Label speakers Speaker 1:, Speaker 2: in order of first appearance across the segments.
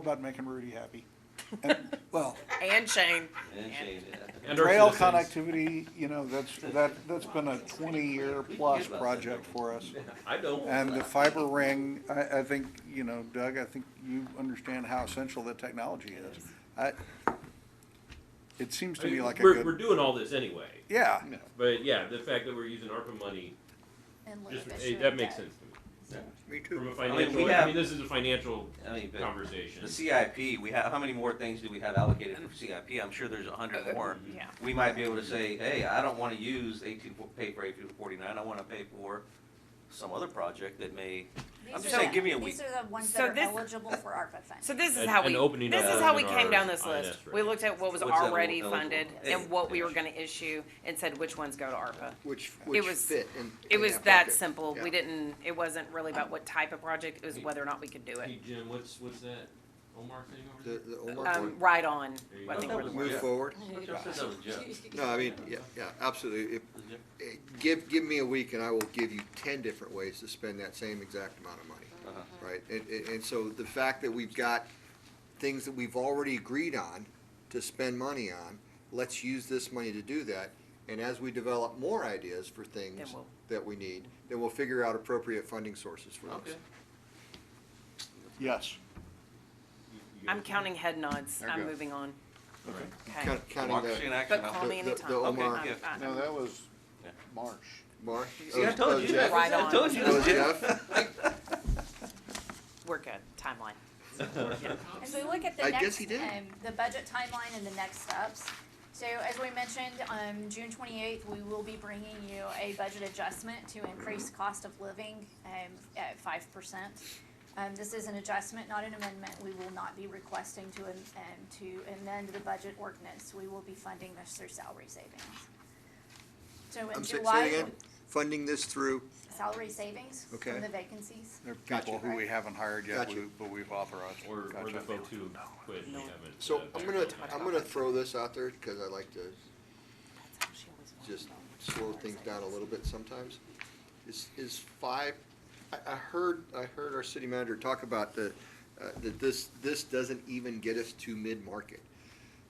Speaker 1: about making Rudy happy. And, well,
Speaker 2: And Shane.
Speaker 3: And Shane, yeah.
Speaker 4: And our
Speaker 1: trail
Speaker 4: citizens.
Speaker 1: connectivity, you know, that's, that, that's been a twenty-year plus project for us.
Speaker 4: I don't.
Speaker 1: And the fiber ring, I, I think, you know, Doug, I think you understand how essential the technology is. I, it seems to me like a
Speaker 4: we're, we're
Speaker 1: good,
Speaker 4: doing all this anyway.
Speaker 1: yeah,
Speaker 4: But yeah, the fact that we're using ARPA money,
Speaker 5: And look
Speaker 4: just,
Speaker 5: at
Speaker 4: hey,
Speaker 5: the
Speaker 4: that makes
Speaker 5: debt.
Speaker 4: sense to me.
Speaker 1: me
Speaker 4: From
Speaker 1: too.
Speaker 4: a financial, I mean,
Speaker 3: have-
Speaker 4: this is a financial
Speaker 3: I mean, but
Speaker 4: conversation.
Speaker 3: the CIP, we have, how many more things do we have allocated for CIP? I'm sure there's a hundred more.
Speaker 2: Yeah.
Speaker 3: We might be able to say, hey, I don't wanna use eighteen, pay for eighteen forty-nine, I wanna pay for some other project that may, I'm
Speaker 5: These
Speaker 3: just
Speaker 5: are
Speaker 3: saying,
Speaker 5: the-
Speaker 3: give me a
Speaker 5: These
Speaker 3: week.
Speaker 5: are the ones
Speaker 2: So
Speaker 5: that are
Speaker 2: this-
Speaker 5: eligible for ARPA funds.
Speaker 2: So this is
Speaker 4: An-
Speaker 2: how
Speaker 4: an
Speaker 2: we,
Speaker 4: opening
Speaker 2: this
Speaker 3: of
Speaker 2: is how we
Speaker 4: an
Speaker 2: came down this
Speaker 4: RRINS
Speaker 2: list.
Speaker 4: rate.
Speaker 2: We looked at what was
Speaker 3: What's that
Speaker 2: already
Speaker 3: eligible?
Speaker 2: funded
Speaker 3: Yes.
Speaker 2: and what we were gonna issue and said which ones go to ARPA.
Speaker 6: Which, which
Speaker 2: was-
Speaker 6: fit in.
Speaker 2: It
Speaker 6: in
Speaker 2: was that
Speaker 6: bucket.
Speaker 2: simple.
Speaker 6: Yeah.
Speaker 2: We didn't, it wasn't really about what type of project, it was whether or not we could do
Speaker 4: Hey
Speaker 2: it.
Speaker 4: Jim, what's what's that Omar thing over
Speaker 6: The,
Speaker 4: there?
Speaker 6: the Omar
Speaker 2: Um,
Speaker 6: one,
Speaker 2: right on.
Speaker 4: There you
Speaker 2: I
Speaker 4: go.
Speaker 2: think we're the
Speaker 6: move
Speaker 3: Yeah.
Speaker 6: forward.
Speaker 3: Just as a joke.
Speaker 6: No, I mean, yeah, yeah, absolutely. If- eh, Give, give me a week and I will give you ten different ways to spend that same exact amount of money,
Speaker 3: Uh-huh.
Speaker 6: right? And, and, and so the fact that we've got things that we've already agreed on to spend money on, let's use this money to do that. And as we develop more ideas for things
Speaker 2: we'll-
Speaker 6: that we need, then we'll figure out appropriate funding sources for those.
Speaker 3: Okay.
Speaker 1: Yes.
Speaker 4: You- you
Speaker 2: I'm
Speaker 4: guys-
Speaker 2: counting head nods.
Speaker 6: There you
Speaker 2: I'm
Speaker 6: go.
Speaker 2: moving on.
Speaker 4: All right.
Speaker 2: Okay.
Speaker 6: Count- Counting
Speaker 3: Democracy in
Speaker 6: the
Speaker 3: action.
Speaker 2: But call me
Speaker 6: The- the-
Speaker 2: anytime.
Speaker 6: the
Speaker 2: I'm-
Speaker 6: Omar-
Speaker 2: I'm- I'm-
Speaker 7: No, that was
Speaker 3: Yeah.
Speaker 7: March.
Speaker 6: March.
Speaker 3: See, I told you,
Speaker 6: Oh,
Speaker 3: that.
Speaker 2: Right
Speaker 3: I
Speaker 2: on.
Speaker 3: told you.
Speaker 6: Those
Speaker 3: that, Jim.
Speaker 6: Jeff.
Speaker 2: We're good. Timeline.
Speaker 5: As we look at the
Speaker 6: I
Speaker 5: next,
Speaker 6: guess he did.
Speaker 5: um, the budget timeline and the next steps. So as we mentioned, um, June twenty-eighth, we will be bringing you a budget adjustment to increase cost of living, um, at five percent. Um, this is an adjustment, not an amendment. We will not be requesting to, am- um, to amend the budget ordinance. We will be funding this through salary savings. So in
Speaker 6: I'm sa- say it
Speaker 5: July.
Speaker 6: again? Funding this through,
Speaker 5: Salary savings
Speaker 6: Okay.
Speaker 5: from the vacancies.
Speaker 1: There are people who we haven't hired yet,
Speaker 6: Gotcha.
Speaker 1: we- but we've authorized.
Speaker 4: Or, or
Speaker 1: Gotcha.
Speaker 4: the folks who quit and we haven't.
Speaker 6: so
Speaker 4: uh,
Speaker 6: I'm
Speaker 4: hired
Speaker 6: gonna,
Speaker 4: them.
Speaker 6: I'm gonna throw this out there, cause I like to
Speaker 2: That's how she always wants
Speaker 6: just
Speaker 2: it.
Speaker 6: slow things down a little bit sometimes. Is, is five, I, I heard, I heard our city manager talk about the, uh, that this, this doesn't even get us to mid-market.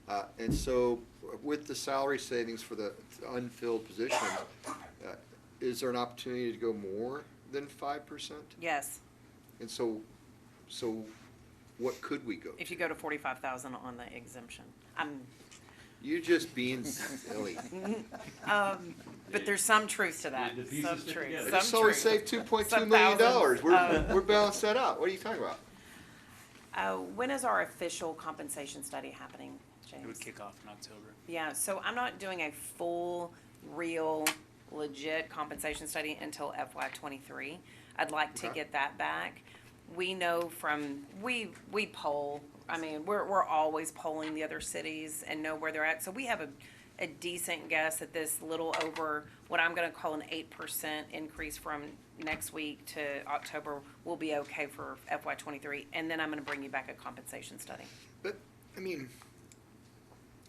Speaker 6: Uh, and so with the salary savings for the unfilled positions, uh, is there an opportunity to go more than five percent?
Speaker 2: Yes,
Speaker 6: And so, so what could we go?
Speaker 2: if you go to forty-five thousand on the exemption. I'm,
Speaker 6: You're just being silly.
Speaker 2: um, but there's some truth to that.
Speaker 4: The pieces
Speaker 2: Some
Speaker 4: fit
Speaker 2: truth,
Speaker 4: together.
Speaker 6: I
Speaker 2: some
Speaker 6: just only
Speaker 2: truth.
Speaker 6: saved two point two
Speaker 2: Some
Speaker 6: million
Speaker 2: thousands.
Speaker 6: dollars. We're,
Speaker 2: Um,
Speaker 6: we're balanced that out. What are you talking about?
Speaker 2: Uh, when is our official compensation study happening,
Speaker 7: It would
Speaker 2: James?
Speaker 7: kick off in October.
Speaker 2: Yeah, so I'm not doing a full, real, legit compensation study until FY twenty-three. I'd like to
Speaker 6: Okay.
Speaker 2: get that back. We know from, we, we poll, I mean, we're, we're always polling the other cities and know where they're at. So we have a, a decent guess at this little over, what I'm gonna call an eight percent increase from next week to October will be okay for FY twenty-three. And then I'm gonna bring you back a compensation study.
Speaker 6: But, I mean,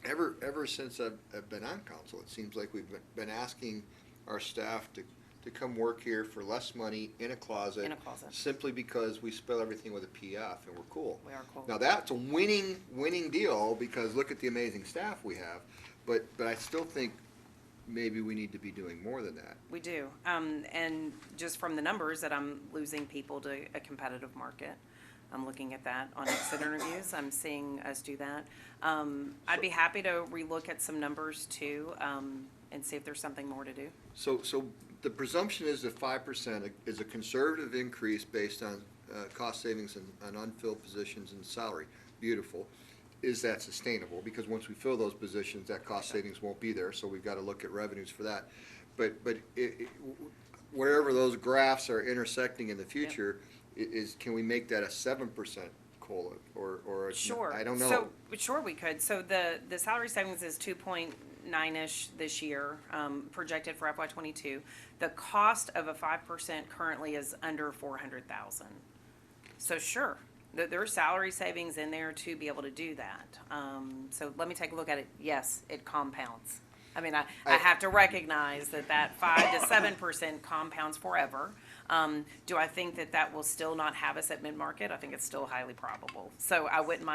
Speaker 6: ever, ever since I've, I've been on council, it seems like we've been, been asking our staff to, to come work here for less money in a closet.
Speaker 2: In a closet.
Speaker 6: Simply because we spell everything with a PF and we're cool.
Speaker 2: We are cool.
Speaker 6: Now, that's a winning, winning deal because look at the amazing staff we have. But, but I still think maybe we need to be doing more than that.
Speaker 2: We do, um, and just from the numbers that I'm losing people to a competitive market. I'm looking at that on exit interviews, I'm seeing us do that. Um, I'd be happy to relook at some numbers too, um, and see if there's something more to do.
Speaker 6: So, so the presumption is that five percent is a conservative increase based on, uh, cost savings and, and unfilled positions and salary. Beautiful. Is that sustainable? Because once we fill those positions, that cost savings won't be there, so we've gotta look at revenues for that. But, but i- i- wherever those graphs are intersecting in the future, i- is, can we make that a seven percent COLA or, or? a-
Speaker 2: Sure.
Speaker 6: I don't know.
Speaker 2: So, sure, we could. So the, the salary savings is two point nine-ish this year, um, projected for FY twenty-two. The cost of a five percent currently is under four hundred thousand. So sure, there, there are salary savings in there to be able to do that. Um, so let me take a look at it. Yes, it compounds. I mean, I, I
Speaker 6: I-
Speaker 2: have to recognize that that five to seven percent compounds forever. Um, do I think that that will still not have us at mid-market? I think it's still highly probable. So I wouldn't mind